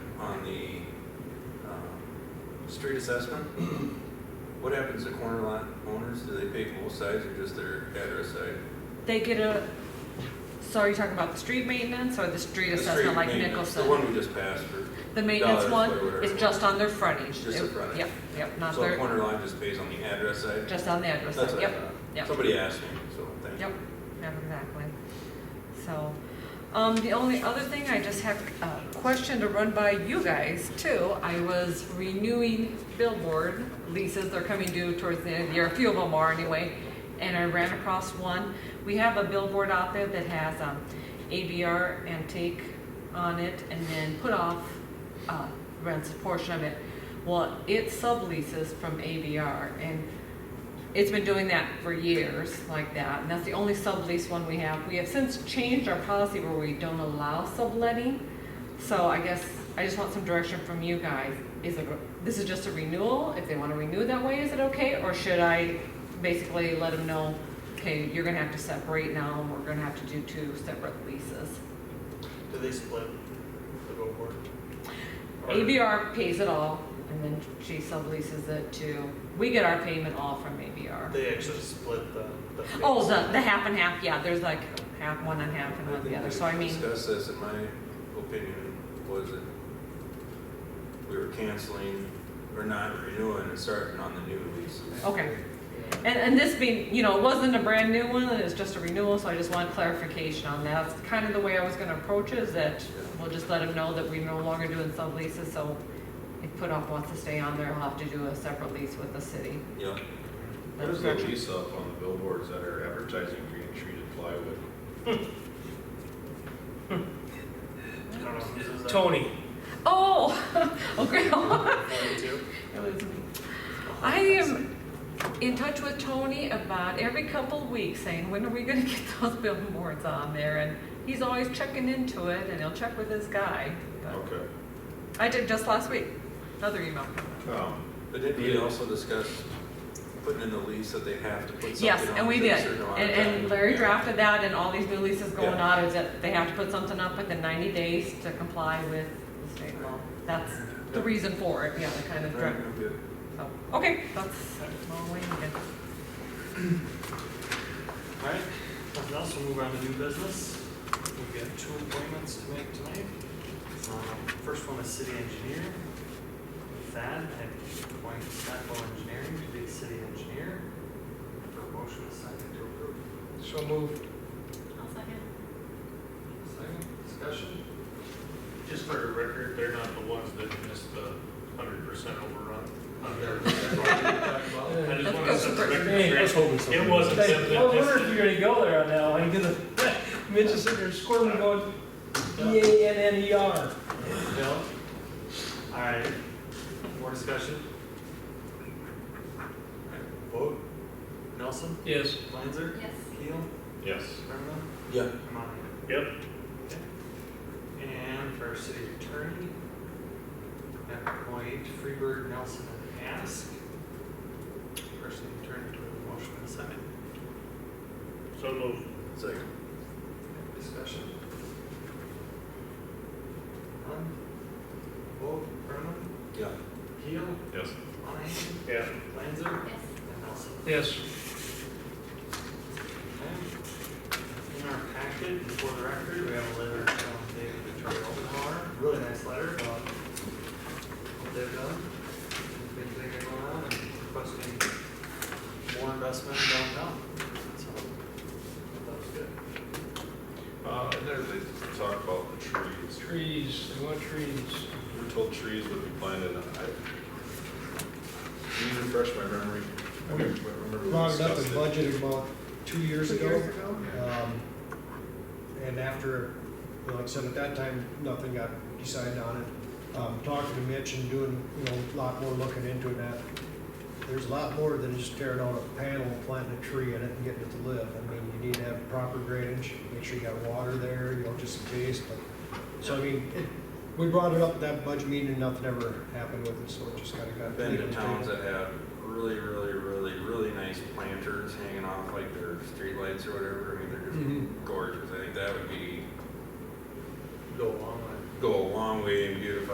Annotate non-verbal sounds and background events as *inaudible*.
um, street assessment, *clears throat* what happens to corner lot owners? Do they pay both sides or just their address side? They get a, so are you talking about the street maintenance or the street The street assessment like maintenance, Nicholson? The one we just passed for, The maintenance dollars, one whatever it is was. just on their frontage. Just the It- frontage. Yep, yep, not so a their, corner lot just pays on the address side? just on the address, That's what I yep, thought. yep. Somebody asked me, so thank you. Yep, yep, exactly. So, um, the only other thing, I just have a question to run by you guys too. I was renewing billboard leases, they're coming due towards the end of the year, a few of them are anyway. And I ran across one, we have a billboard out there that has, um, ABR antique on it and then put off, uh, rents a portion of it. Well, it subleases from ABR and it's been doing that for years like that, and that's the only sublease one we have. We have since changed our policy where we don't allow subletting. So I guess I just want some direction from you guys. Is it, this is just a renewal? If they want to renew that way, is it okay? Or should I basically let them know, okay, you're gonna have to separate now, and we're gonna have to do two separate leases? Do they split the billboard? Or- ABR pays it all, and then she subleases it to, we get our payment all from ABR. They actually split the. the fees. Oh, the, the half and half, yeah, there's like half, one and half and I one the think other, we so I mean, discussed this, in my opinion, was that we were canceling or not renewing and starting on the new leases. okay. And, and this being, you know, it wasn't a brand new one, it's just a renewal, so I just want clarification on that. That's kind of the way I was gonna approach it, is that we'll just let them know that we're no longer doing subleases, so if put off wants to stay on there, he'll have to do a separate lease with the city. Yep. There's no lease up on the billboards that are advertising green treated plywood. I don't know, is that Tony, Oh, *laughs* okay. *laughs* forty-two? I am in touch with Tony about every couple weeks saying, when are we gonna get those billboards on there? And he's always checking into it and he'll check with his guy. But Okay. I did just last week, another email. Um, But didn't we also discuss putting in the lease that they have to put something on? Yes, and we within a did. certain amount of And, time? and Larry Yeah. drafted that and all these new leases going Yeah. on is that they have to put something up within ninety days to comply with the state law. That's the Yeah. reason for it, yeah, the kind of Right, draft. I'm good. So, okay, that's, uh, all we needed. Alright, nothing else, we'll move on to new business. We've got two appointments to make tonight. Um, First one is city engineer. Thad, I appoint Stockwell Engineering to be the city engineer. For a motion, a second to approve. so moved. Second, discussion? Just for the record, they're not the ones that missed the hundred percent overrun. on their- I just want to set the Hey, record I was straight. hoping so. It wasn't Hey, them that I wonder missed if you're gonna go there on that one, because *laughs* Mitch is sitting there squirming going, E A N N E R. Bill? Alright, more discussion? Alright, Vote? Nelson? Yes. Lanzer? Yes. Keel? Yes. Brenneman? Yeah, Kamani? Yep. And for our city attorney, at point, Freeburg, Nelson, and Ask. For our city attorney, do we have a motion and a second? So moved. second. Discussion? None? Vote, Brenneman? Yeah, Keel? Yes. Monahan? Yeah. Lanzer? Yes. And Nelson? Yes. Okay. In our packet, for the record, we have a letter from David Victoria Openhauer, really nice letter about what they've done, things they got going on, and requesting more investment downtown. So, that was good. Uh, and there they talk about the trees. Trees, they want trees. We We're told trees would be planted, and I, can you refresh my memory? I don't remember we brought it up in discussed it. budget about two years Two ago. years ago? Um, And after, you know, like I said, at that time, nothing got decided on it. Um, Talking to Mitch and doing, you know, a lot more looking into it now. There's a lot more than just tearing out a panel, planting a tree in it and getting it to live. I mean, you need to have proper drainage, make sure you got water there, you know, just in case, but. So I mean, it- we brought it up at that budget meeting and nothing ever happened with it, so it just kind of I've got. been to towns that have really, really, really, really nice planters hanging off like their streetlights or whatever. I mean, they're just Mhm. gorgeous. I think that would be, Go along with it. go a long way in beautifying